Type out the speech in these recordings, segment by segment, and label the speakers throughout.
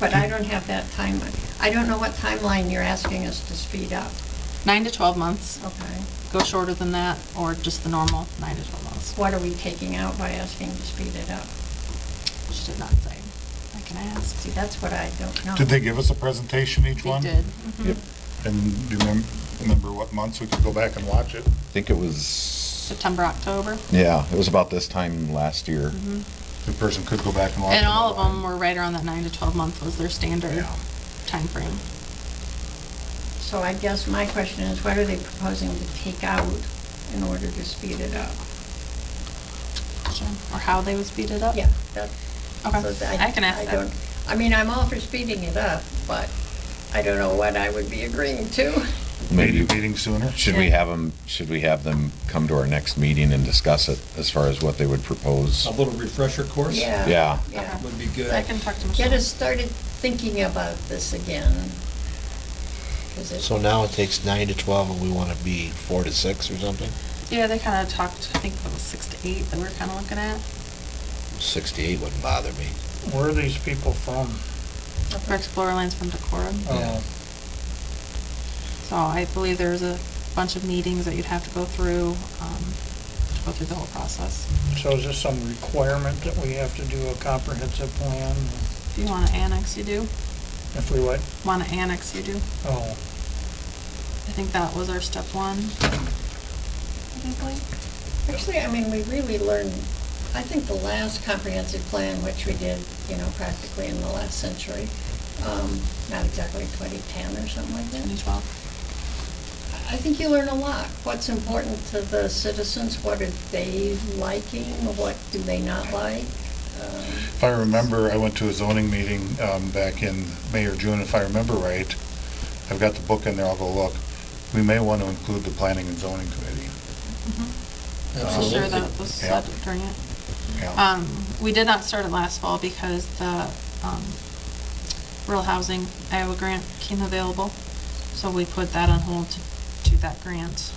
Speaker 1: but I don't have that time. I don't know what timeline you're asking us to speed up,
Speaker 2: Nine to 12 months.
Speaker 1: okay?
Speaker 2: Go shorter than that, or just the normal, nine to 12 months.
Speaker 1: What are we taking out by asking to speed it up?
Speaker 2: She did not say. I can ask.
Speaker 1: See, that's what Mm-hmm. I don't know.
Speaker 3: Did they give us a presentation, each
Speaker 2: They
Speaker 3: one?
Speaker 2: did. Mm-hmm.
Speaker 3: Yep. And do you remem- remember what months we could go back and watch it?
Speaker 4: I think it was,
Speaker 2: September, October. Mm-hmm.
Speaker 4: yeah, it was about this time last year.
Speaker 3: The person could go back and watch it.
Speaker 2: And all of
Speaker 3: online.
Speaker 2: them were right around that nine to 12 month was their standard
Speaker 3: Yeah.
Speaker 2: time frame.
Speaker 1: So I guess my question is, what are they proposing to take out in order to speed it up?
Speaker 2: Or how they would speed it up?
Speaker 1: Yeah, that. so
Speaker 2: Okay, I can ask
Speaker 1: don't-
Speaker 2: that.
Speaker 1: I mean, I'm all for speeding it up, but I don't know what I would be agreeing to.
Speaker 3: Maybe
Speaker 4: Maybe,
Speaker 3: meeting sooner?
Speaker 4: should we have them, should we have them come to our next meeting and discuss it as far as what they would propose?
Speaker 5: A little refresher course?
Speaker 1: Yeah.
Speaker 4: Yeah.
Speaker 1: Yeah.
Speaker 5: Would be good.
Speaker 2: I can talk to Michelle.
Speaker 1: Get us started thinking about this again. 'Cause it-
Speaker 6: So now it takes nine to 12, and we want to be four to six or something?
Speaker 2: Yeah, they kind of talked, I think it was six to eight that we we're kind of looking at.
Speaker 6: Six to eight wouldn't bother me.
Speaker 7: Where are these people from?
Speaker 2: Our Explorer Line's from Decorum.
Speaker 7: Uh,
Speaker 2: So I believe there's a bunch of meetings that you'd have to go through, um, to go through the whole process.
Speaker 7: So is this some requirement that we have to do a comprehensive plan?
Speaker 2: If you want to annex, you do.
Speaker 7: If we what?
Speaker 2: Want to annex, you do.
Speaker 7: Oh,
Speaker 2: I think that was our step one. I think, Blake?
Speaker 1: Actually, I mean, we really learned, I think the last comprehensive plan, which we did, you know, practically in the last century, um, not exactly 2010 or something like that.
Speaker 2: Maybe Twelve.
Speaker 1: I think you learn a lot. What's important to the citizens? What are they liking? What do they not like? Um,
Speaker 3: If I remember, I went to a zoning meeting um, back in May or June, if I remember right. I've got the book in there, I'll go look. We may want to include the planning and zoning committee.
Speaker 2: I'm sure that was
Speaker 3: Yeah.
Speaker 2: said during it.
Speaker 3: Yeah.
Speaker 2: Um, we did not start it last fall because the, um, rural housing Iowa grant came available. So we put that on hold to do that grant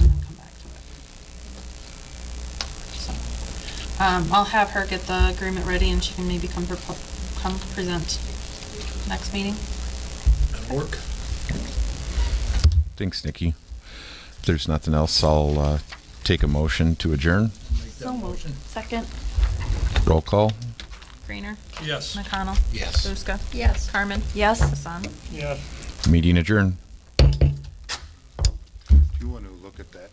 Speaker 2: and then come back to it. So, Um, I'll have her get the agreement ready and she can maybe come, propo- come present next meeting.
Speaker 5: That'll work.
Speaker 4: Thanks, Nikki. If there's nothing else, I'll uh, take a motion to adjourn.
Speaker 5: Make that motion.
Speaker 2: Second.
Speaker 4: Roll call.
Speaker 2: Greener.
Speaker 5: Yes.
Speaker 2: McConnell.
Speaker 6: Yes.
Speaker 2: Buska.
Speaker 1: Yes.
Speaker 2: Carmen. Yes. Hassan.
Speaker 7: yes.
Speaker 4: Meeting adjourned.
Speaker 3: Do you want to look at that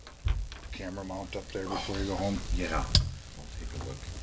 Speaker 3: camera mount up there before you go home? Yeah. I'll take a look.